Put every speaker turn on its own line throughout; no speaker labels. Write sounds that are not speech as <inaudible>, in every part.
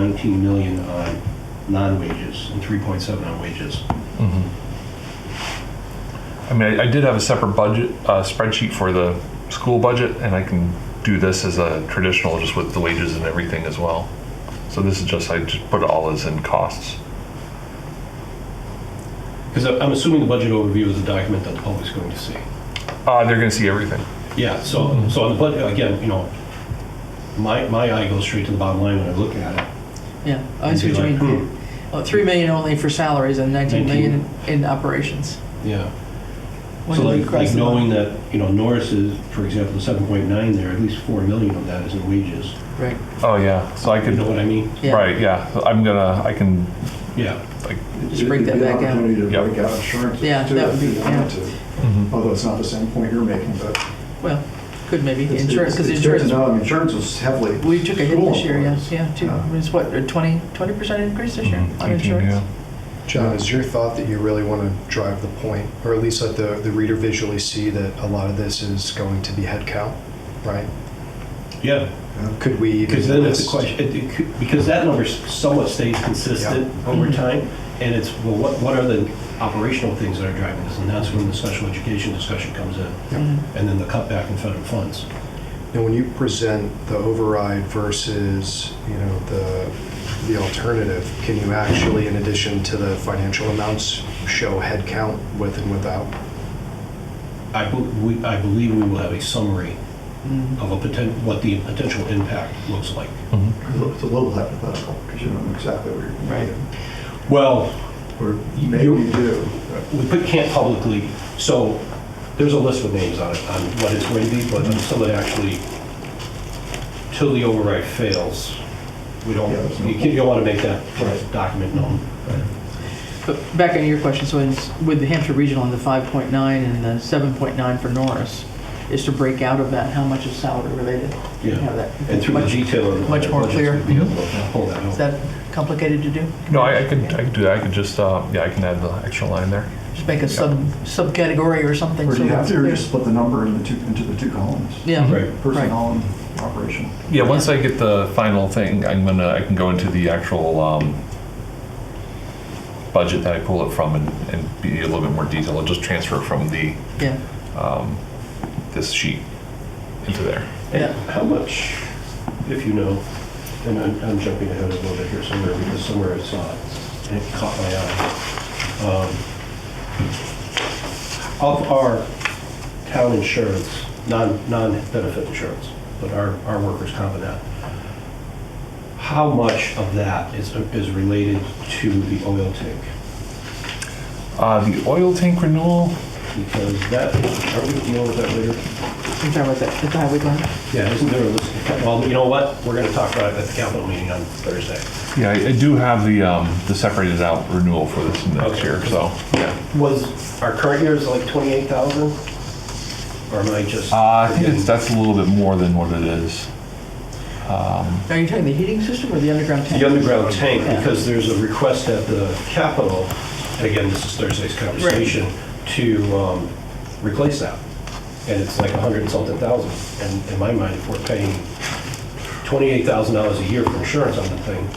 19 million on non-wages and 3.7 on wages.
I mean, I, I did have a separate budget uh, spreadsheet for the school budget, and I can do this as a traditional, just with the wages and everything as well. So this is just I just put it all as in costs.
Because I'm assuming the budget overview is a document that the public's going to see.
Uh, they're going to see everything.
Yeah, so, so on the budget, again, you know, my, my eye goes straight to the bottom line when I look at it.
Yeah, I see
And
what
be
you
like,
mean. Oh, Three million only for salaries and nineteen million in operations.
Yeah.
When
So
do we
like,
cross
like
the
knowing
line?
that, you know, Norris is, for example, the 7.9 there, at least 4 million of that is in wages.
Right,
Oh yeah. So I
You
could.
know what I mean?
yeah.
Right. Yeah. So I'm gonna. I can.
Yeah.
Just break that back out.
It'd be an opportunity to
Yep.
break out insurance.
Yeah,
too,
that
if
would
you
be-
wanted
yeah.
to.
Mm-hmm.
Although it's not the same point you're making, but.
Well, could maybe,
it's-
insurance,
it's-
because
it's good to
insurance,
know. I mean, Insurance was heavily.
we took a hit
school
this year, yeah,
employees.
yeah, too.
Uh.
Yeah.
I mean, It's what, a twenty, twenty percent increase this year
Mhm,
on
19,
insurance?
yeah.
John, is your thought that you really want to drive the point, or at least let the, the reader visually see that a lot of this is going to be headcount, right?
Yeah.
Could we even
Because then it's a
list-
question, it- it could- because that number somewhat stays consistent over time, and it's, well, what, what are the operational things that are driving this? And that's when the special education discussion comes in, and then the cutback in federal funds.
Now, when you present the override versus, you know, the, the alternative, can you actually, in addition to the financial amounts, show headcount with and without?
I, bel- we- I believe we will have a summary
Mm-hmm.
of a potent, what the potential impact looks like.
It's a little hypothetical, because you don't know exactly where you're.
Right.
Well,
Or maybe
You-
you do.
we put- can't publicly, so there's a list with names on it, on what it's going to be, but until it actually, till the override fails, we don't,
Yeah, there's no-
you can't- you don't want to make that
Right.
document known.
But back on your question, so in- with the Hampshire Regional and the five point nine and the seven point nine for Norris, is to break out of that, how much is salary related?
Yeah.
Have that-
And through the
Much-
detail of the
much more
budgets,
clear.
we'd be able to pull that
Is
out.
that complicated to do?
No, I, I could. I could do that. I could just. Uh, yeah. I can add the extra line there.
Just make a sub, subcategory or something?
Or
so
do you have
it's
to, or
clear.
just split the number into two, into the two columns?
Yeah.
Right.
Personnel and operation.
Yeah. Once I get the final thing, I'm gonna. I can go into the actual um, budget that I pull it from and, and be a little bit more detailed. I'll just transfer from the
Yeah,
this sheet into there.
yeah.
How much, if you know, and I'm, I'm jumping ahead a little bit here somewhere, because somewhere I saw it, and it caught my eye. Um, Of our town insurance, non, non-benefit insurance, but our, our workers' comp and that, how much of that is, is related to the oil tank?
Uh, the oil tank renewal.
Because that, are we dealing with that later?
You're talking about that, the highway plan?
Yeah, isn't there a list? Well, you know what? We're going to talk about it at the capital meeting on Thursday.
Yeah, I I do have the, um, the separated out renewal for this next
Okay.
year, so. yeah.
Was, our current year is like 28,000? Or am I just?
Uh, I think
forgetting?
it's, that's a little bit more than what it is.
Are you talking the heating system or the underground tank?
The underground tank,
Yeah.
because there's a request at the Capitol, and again, this is Thursday's conversation, to um, replace that. And it's like 100 and something thousand. And in my mind, if we're paying $28,000 a year for insurance on the thing,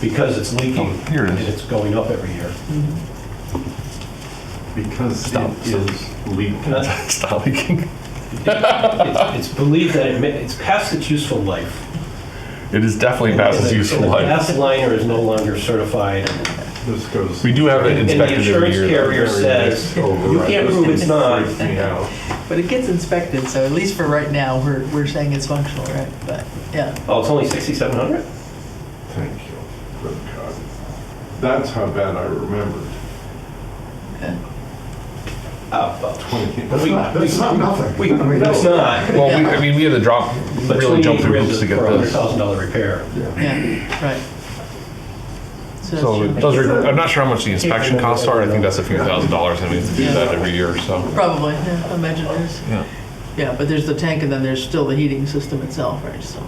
because it's leaking.
Oh, here it is.
And it's going up every year.
Because
Stop.
it is legal.
<laughs> Stop leaking.
It's it's believed that it, ma- it's past its useful life.
It is definitely
And
past
the-
its useful
and The
life.
gas liner is no longer certified.
This goes.
We do have it
And the
inspected every
insurance
year.
carrier says, you can't prove it's not.
Yeah.
But it gets inspected, so at least for right now, we're, we're saying it's functional, right? But, yeah,
Oh, it's only 6,700?
Thank you. Good God. That's how bad I remembered.
Oh, well,
Twenty-
That's
We-
not, that's not nothing.
we,
I mean,
no, it's not.
Well, we, I mean, we had to drop,
But
really
28
jump through
grand
hoops to
is
get
For a hundred
this.
thousand dollar repair.
yeah, right. So that's
So
true.
it does, re- I'm not sure how much the inspection costs are. I think that's a few thousand dollars and we have to do that every year, so.
Probably, yeah, I imagine there's,
Yeah.
yeah, but there's the tank and then there's still the heating system itself, right, so,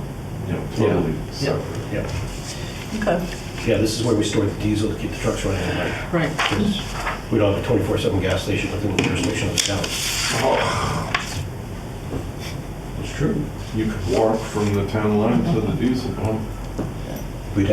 Yeah, totally separate.
Yeah,
okay,
yeah, this is where we store the diesel to keep the trucks running at night.
right.
'cause We don't have a 24/7 gas station within the jurisdiction of the town.
Oh.
It's true. You could walk from the town line to the diesel pump.